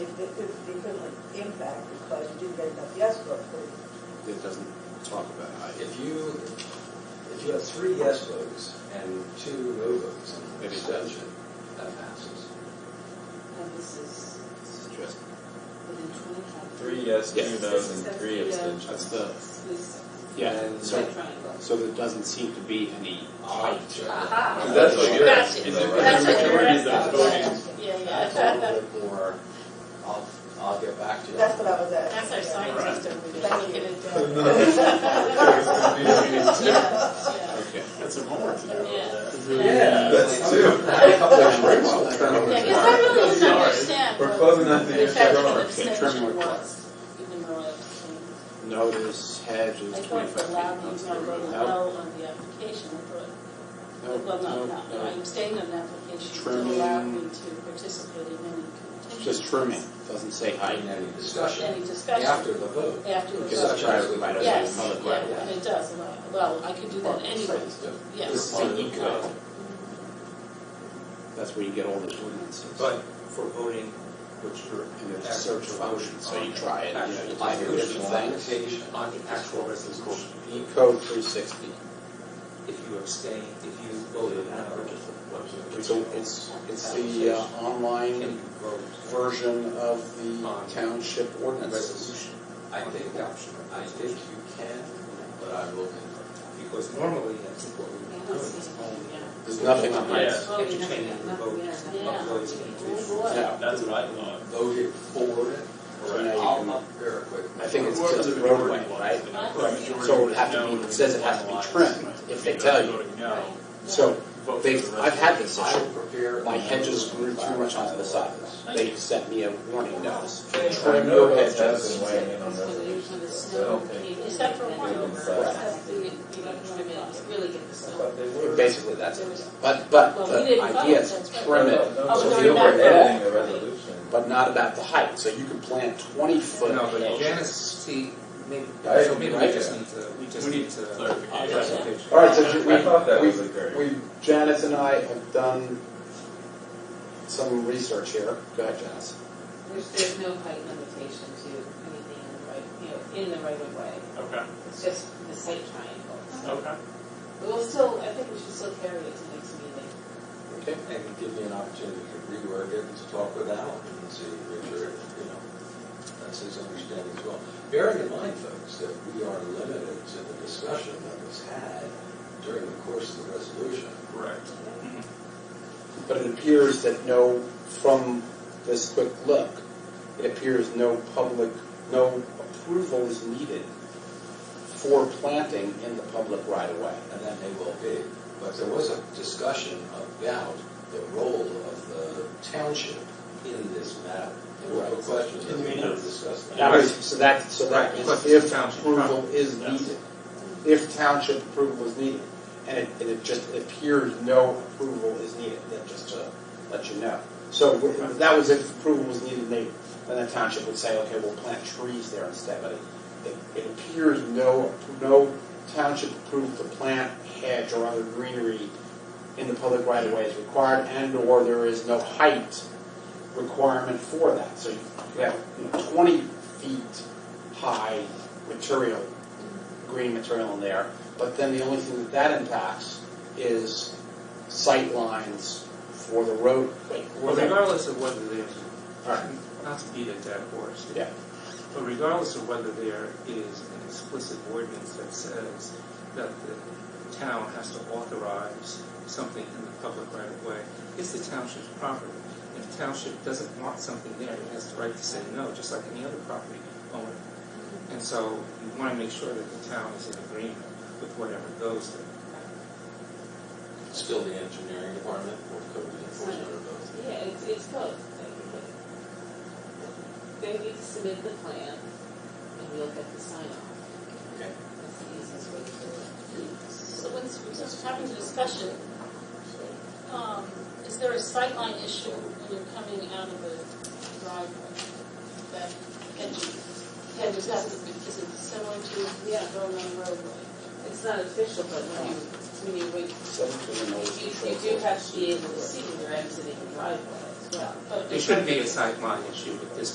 yes votes, please. It doesn't talk about height. If you, if you have three yes votes and two no votes and an Maybe it's abstention, that passes. And this is It's just- within twenty-five. Three yes, two Yes. no's, and three Yeah. That's abstentions. the, This yeah, And- so, triangle. so there doesn't seem to be any height. Aha. That's what you're That's asking. it. Is it That's the what you're majority that's asking. voting? Yeah, That's yeah. a little bit more, I'll, I'll get back to you. That's what I was asking. That's our scientist over there Thank looking you. at that. Yeah. Okay. That's some homework to do. Yeah. That's two. Yeah, because I really didn't Sorry. understand We're what closing that the thing. effect of Sure. abstention was, even though I abstained. Notice hedge is I thought for twenty-five loud feet. music, I wrote No, no on the application, I thought no, Well, no, not, not, I no. abstained on the application to Trimming. allow me to participate in any contention. Just trimming, doesn't say height. In any discussion Any discussion after the vote. after the Okay, Such that's vote. as private, the- might as well be Yes, public yeah, right away. and it does, allow- well, I could do that Park anyway, sites do. yes. This part of the You could. law. That's where you get all the ordinances. But for voting, which you're And there's a search function, so you try it, you know, you try Actual different things. application. on the actual resolution, E code three sixty. if you abstain, if you voted no, It's, a- it's, it's the uh, can you online vote for version of the township the ordinances. resolution? I think, I think you can, but I will confirm. Because normally, that's what we Yeah, would do. this is- yeah. There's nothing on Yeah. height. Oh, If you yeah, change yeah, the vote, yeah. Yeah. not voting Oh, individually. boy. Yeah. That's what I thought. Voted for it, So now you I'll can- up very quickly. I think it's Whoever just the roadway, majority was, right? the Right. majority So it would was have to no, be- it says it has to be otherwise, trimmed, if they tell you. voting no, Right. So vote for they, the I've had this I issue. will prepare. My hedges grew too much onto the side. They sent me a warning notice. Trim know your that's hedges. That's for the usually the snow. Except for one, except the, you know, I mean, it's the- really good to I snow. thought they were. Basically, that's it. But, but Well, we the didn't idea vote, is that's right. trim it, No, no, Oh, no. so you'll not break that, that. a resolution. but not about the height. So you can plant twenty foot No, but hedges. Janice, see, maybe, I- so maybe we I- just need to, we just We need need to. clarification. All right, so you- we, I thought that was we- occurring. we, Janice and I have done some research here. Go ahead, Janice. There's, there's no height limitation to anything in the right, you know, in the right of way. Okay, It's just the site triangle. okay. But We'll still, I think we should still carry it to next meeting. Okay. And give me an opportunity to rework it and to talk with Alan and see, Richard, you know, that's his understanding as well. Bearing in mind, folks, that we are limited to the discussion that was had during the course of the resolution. Correct. Mm-hmm. But it appears that no, from this quick look, it appears no public, no approval is needed for planting in the public right of way. and that may well be. But there was a discussion about the role of the township in this matter. There were no questions that we never discussed. that. That was, so that, so that Right, is because it's if township approval is Yes. needed, if township approval is needed. And it, and it just appears no approval is needed, that just to let you know. So w- that was if approval was needed, they, then the township would say, okay, we'll plant trees there instead, but it, it- it appears no, no township approval to plant hedge or other greenery in the public right of way is required and/or there is no height requirement for that. So you have you know, 20 feet high material, green material in there, but then the only thing that that impacts is sight lines for the road. Wait, Well, okay. regardless of whether there's, All right. not to beat a dead horse. Yeah. But regardless of whether there is an explicit ordinance that says that the town has to authorize something in the public right of way, it's the township's property. If the township doesn't want something there, it has the right to say no, just like any other property owner. And so you want to make sure that the town is in agreement with whatever goes there. Still the engineering department or code enforcement or both. Yeah, it's, it's both, like, they need to submit the plan, and we'll get the sign off. Okay. That's the easiest way to do it. So when we just having the discussion, um, is there a sightline issue when you're coming out of the driveway? That hedges, hedges have to be, is it similar to, yeah, going on the roadway? It's not official, but when you, when you wait, Seven foot and over you, control. you do have to be able to see when you're exiting the driveway as well. But It shouldn't be a sideline issue with this